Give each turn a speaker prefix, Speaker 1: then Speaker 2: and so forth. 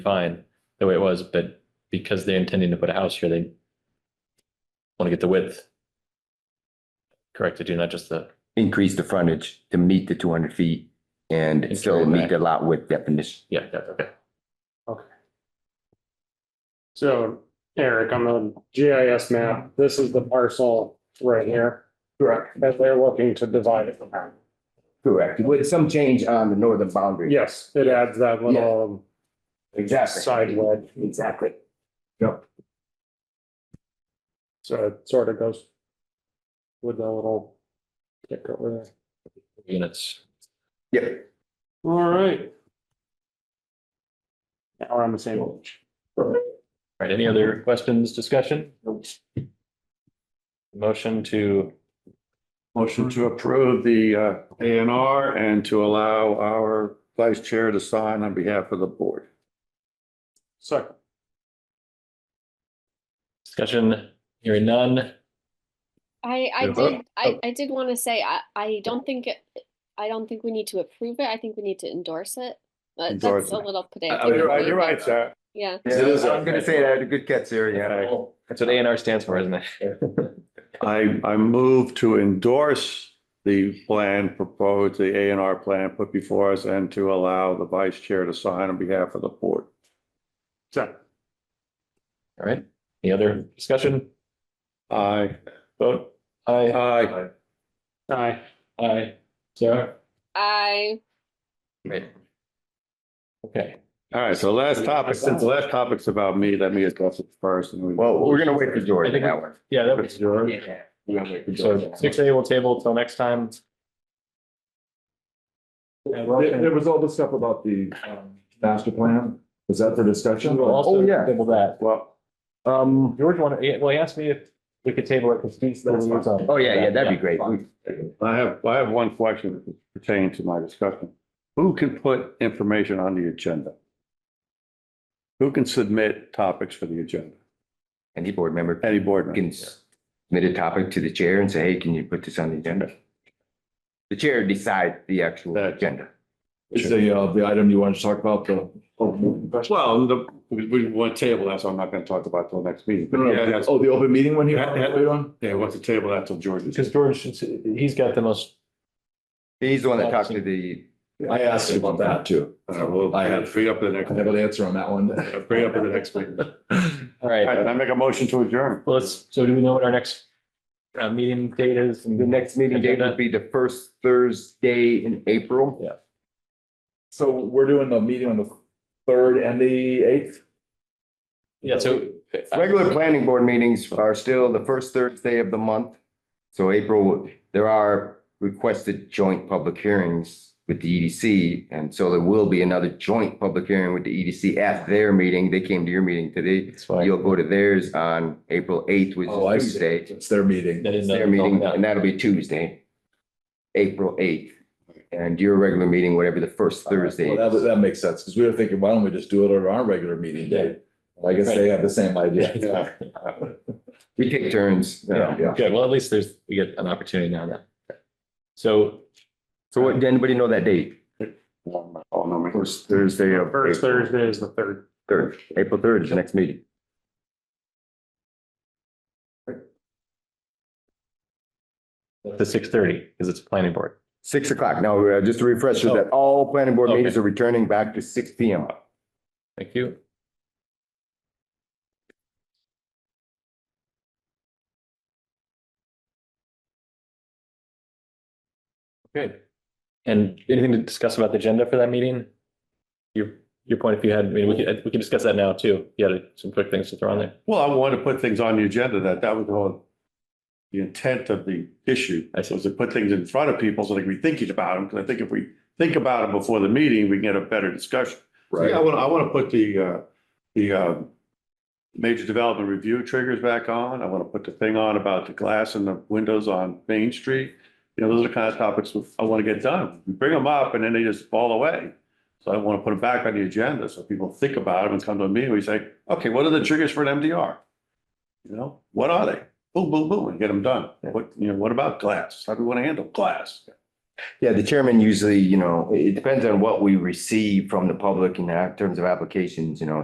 Speaker 1: fine the way it was, but because they're intending to put a house here, they want to get the width corrected, do not just the,
Speaker 2: increase the frontage to meet the two hundred feet and
Speaker 1: And
Speaker 2: still
Speaker 1: carry
Speaker 2: meet the lot width definition.
Speaker 1: yeah, yeah, okay.
Speaker 3: So Eric, on the GIS map, this is the parcel right here. Correct. That they're looking to divide it.
Speaker 2: Correct, with some change on the northern boundary.
Speaker 3: Yes, it adds that little side wedge,
Speaker 2: Exactly.
Speaker 3: so it sort of goes with the little kick over there.
Speaker 1: Units,
Speaker 2: Yep.
Speaker 3: All right. Now we're on the same page.
Speaker 1: All right, any other questions, discussion? Motion to,
Speaker 4: Motion to approve the uh, A and R and to allow our vice chair to sign on behalf of the board.
Speaker 3: Second,
Speaker 1: discussion, hearing none,
Speaker 5: I, I
Speaker 4: Yeah.
Speaker 5: did, I,
Speaker 4: Oh.
Speaker 5: I did want to say, I, I don't think, it- I don't think we need to approve it. I think we need to endorse it. But
Speaker 4: Endorse
Speaker 5: that's a
Speaker 4: it.
Speaker 5: little pedantic.
Speaker 4: You're right,
Speaker 5: but
Speaker 4: you're right, sir.
Speaker 5: Yeah,
Speaker 2: I was gonna say that, a good catch there, yeah.
Speaker 1: that's what A and R stands for, isn't it?
Speaker 4: I, I move to endorse the plan proposed, the A and R plan put before us and to allow the vice chair to sign on behalf of the board.
Speaker 3: second.
Speaker 1: All right, any other discussion?
Speaker 4: Aye.
Speaker 1: Vote, aye,
Speaker 4: Aye.
Speaker 3: Aye.
Speaker 1: aye, Sarah?
Speaker 5: I,
Speaker 1: Great. Okay,
Speaker 4: All right, so last topic, since the last topic's about me, let me address it first. and we-
Speaker 2: Well, we're gonna wait for
Speaker 1: I
Speaker 2: George on
Speaker 1: think
Speaker 2: that one.
Speaker 1: yeah, that was yours.
Speaker 2: We're gonna wait for George on
Speaker 1: So
Speaker 2: that
Speaker 1: six A will table till next time. And we'll-
Speaker 6: There, there was all this stuff about the
Speaker 1: um,
Speaker 6: master plan. Was that for discussion?
Speaker 1: We'll also
Speaker 6: Oh, yeah.
Speaker 1: table that.
Speaker 4: Well,
Speaker 6: Um,
Speaker 1: George wanted, well, he asked me if we could table it because he's.
Speaker 6: That's fine.
Speaker 2: one. Oh, yeah, yeah, that'd be great. We-
Speaker 4: I have, I have one question pertaining to my discussion. Who can put information on the agenda? Who can submit topics for the agenda?
Speaker 2: Any board member
Speaker 4: Any board member?
Speaker 2: can submit a topic to the chair and say, hey, can you put this on the agenda? The chair decides the actual
Speaker 4: That-
Speaker 2: agenda.
Speaker 6: is the, uh, the item you wanted to talk about, the.
Speaker 4: Well, the, we, we want to table that, so I'm not going to talk about it till next meeting. But yeah, that's,
Speaker 6: Oh, the open meeting one here?
Speaker 4: Yeah, yeah.
Speaker 6: Wait on.
Speaker 4: yeah, what's the table that till George?
Speaker 1: Because George, he's got the most,
Speaker 2: He's the one that talked to the,
Speaker 6: I asked you about that too.
Speaker 4: Uh, we'll
Speaker 6: I have-
Speaker 4: free up the next,
Speaker 6: I have an answer on that one.
Speaker 4: free up in the next meeting. All
Speaker 1: all right,
Speaker 4: right, then I make a motion to adjourn.
Speaker 1: well, let's, so do we know what our next uh, meeting date is?
Speaker 2: the next meeting date will be the first Thursday in April.
Speaker 6: So we're doing the meeting on the third and the eighth?
Speaker 1: Yeah, so.
Speaker 2: Regular planning board meetings are still the first Thursday of the month. So April, there are requested joint public hearings with the EDC. And so there will be another joint public hearing with the EDC at their meeting. They came to your meeting today.
Speaker 1: That's fine.
Speaker 2: You'll go to theirs on April eighth, which
Speaker 6: Oh, I
Speaker 2: is
Speaker 6: see.
Speaker 2: Tuesday.
Speaker 6: It's their meeting.
Speaker 1: That is
Speaker 2: It's
Speaker 1: not-
Speaker 2: their meeting,
Speaker 1: yeah.
Speaker 2: and that'll be Tuesday, April eighth. And your regular meeting, whatever the first Thursday.
Speaker 6: Well, That,
Speaker 2: is.
Speaker 6: that makes sense, because we were thinking, why don't we just do it at our regular meeting day? I guess they have the same idea.
Speaker 4: Yeah.
Speaker 2: We take turns. you know.
Speaker 6: Yeah.
Speaker 1: Good, well, at least there's, we get an opportunity now then. So,
Speaker 2: So what, did anybody know that date?
Speaker 4: Oh, no, man.
Speaker 2: First Thursday of.
Speaker 3: First
Speaker 2: April.
Speaker 3: Thursday is the third.
Speaker 2: Third, April third is the next meeting.
Speaker 1: the six thirty, because it's a planning board.
Speaker 2: Six o'clock. Now, uh, just a refresher that all planning board
Speaker 1: Okay.
Speaker 2: meetings are returning back to six P M.
Speaker 1: Thank you. Good. And anything to discuss about the agenda for that meeting? Your, your point, if you had, I mean, we could, we could discuss that now too. If You had some quick things to throw on there.
Speaker 4: Well, I wanted to put things on the agenda that, that was the whole, the intent of the issue.
Speaker 1: I see.
Speaker 4: Was to put things in front of people so they can be thinking about them, because I think if we think about them before the meeting, we can get a better discussion. So, Yeah, I want, I want to put the, uh, the, um, major development review triggers back on. I want to put the thing on about the glass and the windows on Main Street. You know, those are the kind of topics I want to get done. We Bring them up and then they just fall away. So I want to put them back on the agenda so people think about them and come to a meeting. We say, okay, what are the triggers for an MDR? You know, what are they? Boom, boom, boom, and get them done. What, you know, what about glass? How do we want to handle glass?
Speaker 2: Yeah, the chairman usually, you know, it it depends on what we receive from the public in terms uh, of applications, you know,